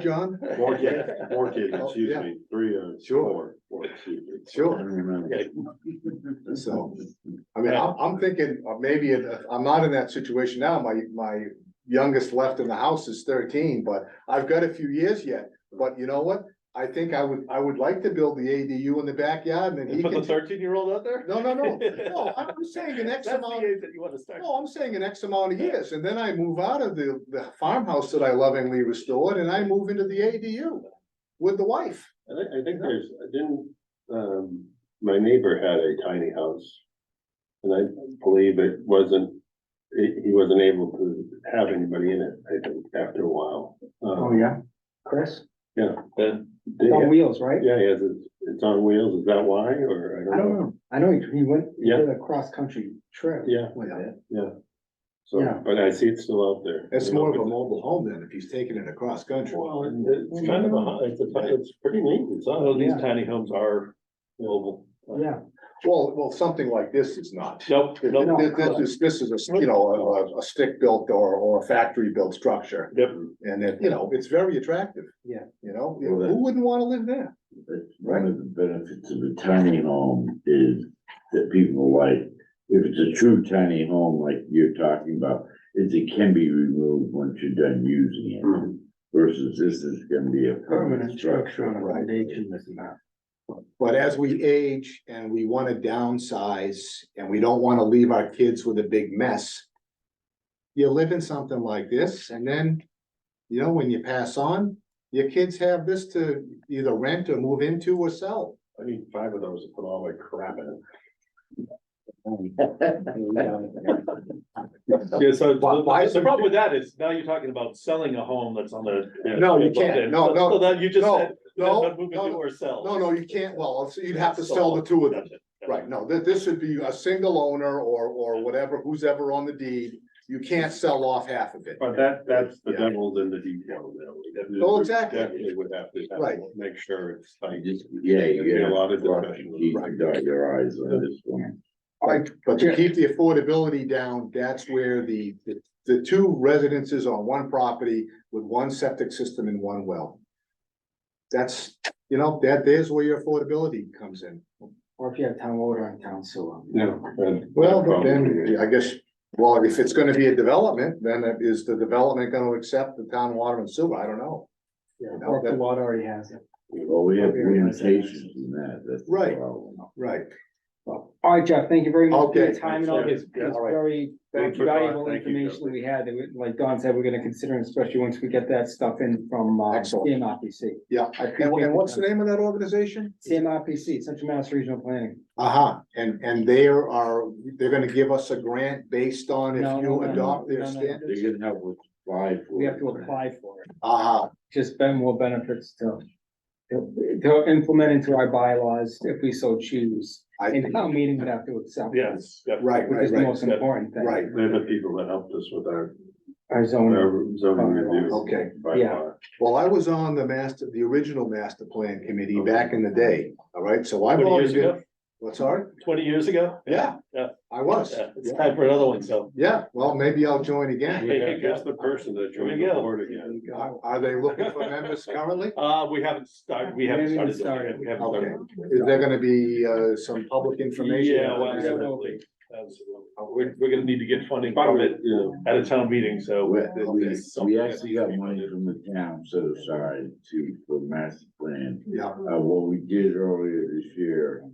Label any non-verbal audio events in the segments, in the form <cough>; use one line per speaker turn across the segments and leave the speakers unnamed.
John?
Four <laughs> kids, four kids,
Oh,
excuse
yeah.
me, three, uh,
Sure.
four, four, excuse me.
Sure, so, I mean, I'm, I'm thinking, uh, maybe, if- if I'm not in that situation now, my, my youngest left in the house is thirteen, but I've got a few years yet, but you know what? I think I would, I would like to build the ADU in the backyard and then he
Put the
can,
thirteen year old out there?
no, no,
<laughs>
no, no, I'm just saying the next
That's the
amount.
age that you wanna start.
No, I'm saying an X amount of years, and then I move out of the, the farmhouse that I lovingly restored, and I move into the ADU with the wife.
I think, I think there's, I didn't, um, my neighbor had a tiny house. And I believe it wasn't, he, he wasn't able to have anybody in it, I think, after a while.
Oh,
Um,
yeah, Chris,
Then,
they-
on wheels, right?
Yeah, he has, it- it's on wheels, is that why, or
I
I
don't
don't know,
know, I know he, he went, he
Yeah.
did a cross-country trip.
Yeah.
With it,
so,
Yeah.
but I see it's still out there.
It's
You know,
more of a
but-
mobile home then, if he's taking it across country.
Well, it- it's kind of a, it's a, it's pretty neat, it's
well,
on,
these
Yeah.
tiny homes are mobile.
yeah,
Well, well, something like this is not.
Nope, nope,
No.
This this is, this is, a you know, a- a, a stick-built or, or a factory-built structure,
yep.
and it, you know, it's very attractive.
Yeah.
You know,
Well, that-
who wouldn't wanna live there?
But one of the benefits of a tiny home is that people like, if it's a true tiny home like you're talking about, is it can be removed once you're done using
Mm.
it
Mhm.
versus this is gonna be a
permanent structure on a
Right.
foundation is not.
But as we age and we wanna downsize, and we don't wanna leave our kids with a big mess. You live in something like this, and then, you know, when you pass on, your kids have this to either rent or move into or sell.
I need five of those to put all my crap in. Yeah, so.
Why- why is
The
it-
problem with that is now you're talking about selling a home that's on the.
No, you can't.
Yeah,
No,
so-
no,
So that you just
no,
said.
no,
not Move into
no,
or sell.
No, no, you can't, well, so you'd have to sell the two of them. Right, no, this, this should be a single owner or, or whatever, who's ever on the deed, you can't sell off half of it.
But that, that's the
Yeah.
devil's in the detail. though. We
Oh, exactly.
Definitely would have to. have-
Right.
Make sure it's like.
Just, yeah,
There'd be
you
a
got
lot
a
of
lot of
discussion.
T's to dot your eyes on this one.
Like, but to keep the affordability down, that's where the, the, the two residences on one property with one septic system and one well. That's, you know, that, there's where your affordability comes in.
Or if you have town water and town sewer.
No.
Well, but then, I guess, well, if it's gonna be a development, then it- is the development gonna accept the town water and sewer? I don't know.
Yeah,
No,
or if the
that-
water already has it.
Well, we have limitations in that, that's. the
Right.
problem.
Right.
All right, Jeff, thank you very much for your
Okay,
time and all
thanks,
this,
yeah.
this
All right.
very
Thanks for
valuable
calling. Thank you,
information that we had, that we- like Don said, we're gonna consider, especially once we get that stuff in from, uh,
Excellent.
CMRPC.
Yeah.
I
And,
appreciate
and what's the
the
name of that organization?
CMRPC, Central Mass Regional Planning.
Uh-huh, and, and they are, they're gonna give us a grant based on
No,
if
no,
you
no, no,
adopt their
no, no.
standard?
They're gonna have to apply for.
We have to
it.
apply for it,
Uh-huh,
just spend more benefits to, to to implement into our bylaws if we so choose.
I,
And town meeting would have to accept.
Yes. yep.
Right.
Which is the most
right.
important thing.
right,
They're the people that helped us with our,
Our zoning.
our zoning review.
Okay.
by
Mm. Yeah.
far.
well, I was on the master, the original master plan committee back in the day, all right, so I've
Twenty
always
years
been,
ago,
what's hard?
twenty years ago.
Yeah,
Yeah.
I was,
Yeah, It's time for another one, so.
yeah, well, maybe I'll join again.
We have just the person that joined the
There we go.
board again.
Are, are they looking for members
<laughs>
currently?
Uh, we haven't started, we haven't
We haven't
started. doing it. We haven't
Okay.
started.
Is there gonna be, uh, some public information?
Yeah, well,
Yeah.
absolutely. Absolutely. We're, we're gonna need to get funding
Part
from
of
it
it, you know,
at a town meeting, so.
We,
it-
we-
it's something
we
that
actually got
we-
money from the town set aside to, for master plan.
Yeah,
Uh, what we did earlier this year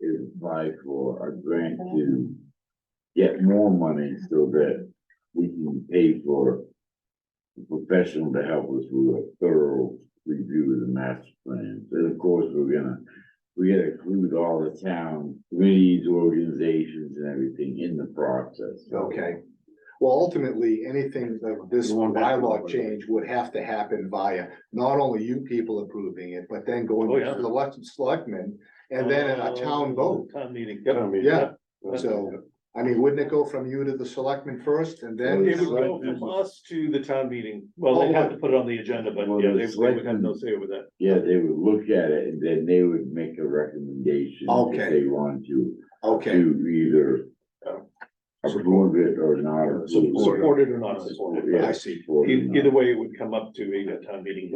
is apply for a grant to get more money so that we can pay for a professional to help us with a thorough review of the master plan. And of course, we're gonna, we gotta include all the town committees, organizations and everything in the process.
okay. Well, ultimately, anything of this bylaw change would have to happen via not only you people approving it, but then
Oh,
going
yeah. Oh.
to the elect- selectmen and then in a town vote.
Uh, Town meeting.
I mean,
Yeah, so, I mean, wouldn't it go from you to the selectmen first and then?
It would Oh, go from us to the town meeting. Well,
Oh,
they have to put it on the agenda, but
Well,
yeah, they
the
they would have no
selectmen-
say over that.
Yeah, they would look at it and then they would make a recommendation
Okay.
if they want to,
Okay,
to either
Yeah.
approve it or not. approve it.
Supported or not supported.
Yeah.
I see.
Support it or
E-
not.
Either way, it would come up to a town meeting